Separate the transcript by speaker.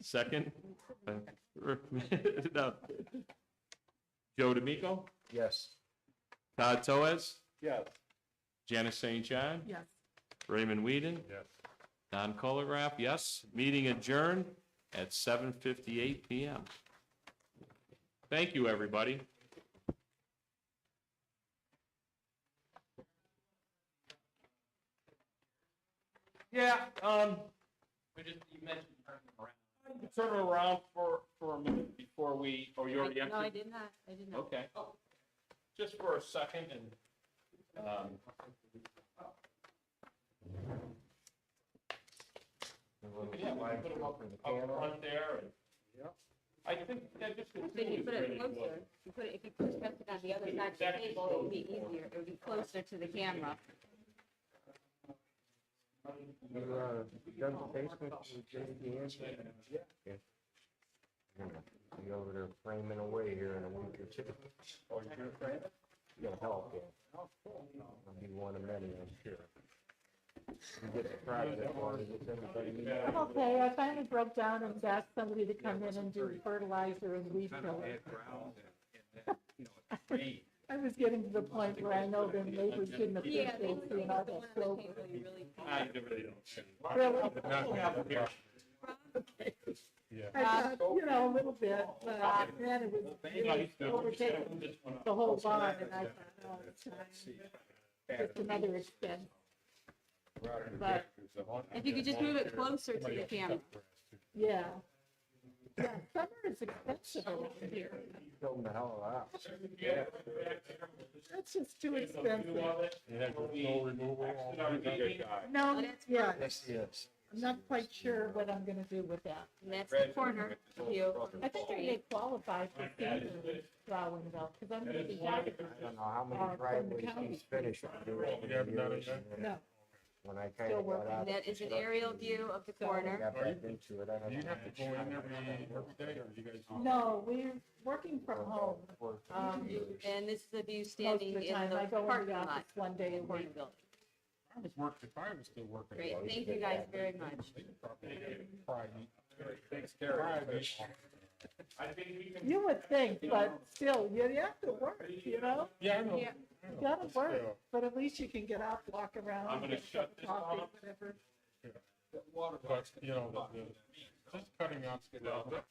Speaker 1: Second. No. Joe D'Amico,
Speaker 2: Yes.
Speaker 1: Todd Toez,
Speaker 2: Yes.
Speaker 1: Janice St. John,
Speaker 3: Yes.
Speaker 1: Raymond Whedon,
Speaker 2: Yes.
Speaker 1: Don Colograph, yes. Meeting adjourned at seven fifty-eight PM. Thank you, everybody. Yeah, um,
Speaker 4: We just, you mentioned turning around.
Speaker 1: turn around for, for a minute before we, or you already
Speaker 3: No, I
Speaker 1: entered?
Speaker 3: did not, I did not.
Speaker 1: Okay. Just for a second and, um. Yeah, we can put them up, up front there and.
Speaker 2: Yep.
Speaker 1: I think that just.
Speaker 3: I think you put it closer, you put it, if you push it on the other side of the table, it would be easier, it would be closer to the camera.
Speaker 2: You, uh, done the basement with J.P. Anderson? Yeah. You're gonna Be over there framing away here in a week or two. Oh, you're gonna frame it? Oh, You gotta help, yeah. I'll be one of many, I'm sure. You get the project, or is it everybody needs?
Speaker 5: I'm okay, I finally broke down and asked somebody to come in and do fertilizer and weed killer. I was getting to the point where I know their neighbors didn't
Speaker 3: Yeah,
Speaker 5: appreciate
Speaker 3: they put
Speaker 5: seeing all
Speaker 3: the one on
Speaker 5: that
Speaker 3: the
Speaker 5: silver.
Speaker 3: table you really
Speaker 1: I
Speaker 3: can't.
Speaker 1: really don't. care.
Speaker 5: Really? I
Speaker 3: Uh,
Speaker 5: thought, You know, a little bit, but uh, then it was really overtaking the whole barn and I thought, oh, it's time. Just another expense. But,
Speaker 3: If you could just move it closer to the camera.
Speaker 5: yeah. Yeah, summer is expensive over here.
Speaker 2: Fill them the hell out.
Speaker 5: That's just too expensive.
Speaker 3: Oh,
Speaker 5: No,
Speaker 3: that's
Speaker 5: yeah,
Speaker 2: Yes, yes.
Speaker 5: I'm not quite sure what I'm gonna do with that.
Speaker 3: And that's the corner view.
Speaker 5: I think I get qualified for senior drawing though, because I'm gonna be happy.
Speaker 2: I don't know how
Speaker 3: Uh,
Speaker 2: many driveways he's finished. throughout the years, and
Speaker 5: No,
Speaker 2: When I kinda
Speaker 5: Still
Speaker 2: got
Speaker 5: working.
Speaker 2: out.
Speaker 3: And that is an aerial view of the corner.
Speaker 2: Got back into it, I don't know.
Speaker 6: Do you have to go in every, every day, or you guys?
Speaker 5: no, we're working from home. Um,
Speaker 3: And this is the view
Speaker 5: most of
Speaker 3: standing
Speaker 5: the
Speaker 3: in
Speaker 5: time, I
Speaker 3: the
Speaker 5: go in
Speaker 3: parking
Speaker 5: the
Speaker 3: lot.
Speaker 5: office one day a
Speaker 3: of the
Speaker 5: week.
Speaker 3: building.
Speaker 6: I was working, if I was still working.
Speaker 3: Great, thank you guys very much.
Speaker 6: They probably get Friday. Friday.
Speaker 5: You would think, but still, you you have to work, you know?
Speaker 6: Yeah, I know.
Speaker 3: Yeah.
Speaker 6: I know.
Speaker 5: You gotta
Speaker 6: But
Speaker 5: work,
Speaker 6: still,
Speaker 5: but at least you can get out, walk around.
Speaker 1: I'm gonna
Speaker 5: get
Speaker 1: shut
Speaker 5: some
Speaker 1: this
Speaker 5: coffee,
Speaker 1: off.
Speaker 5: whatever.
Speaker 6: But, you know, the- the- just cutting out stuff,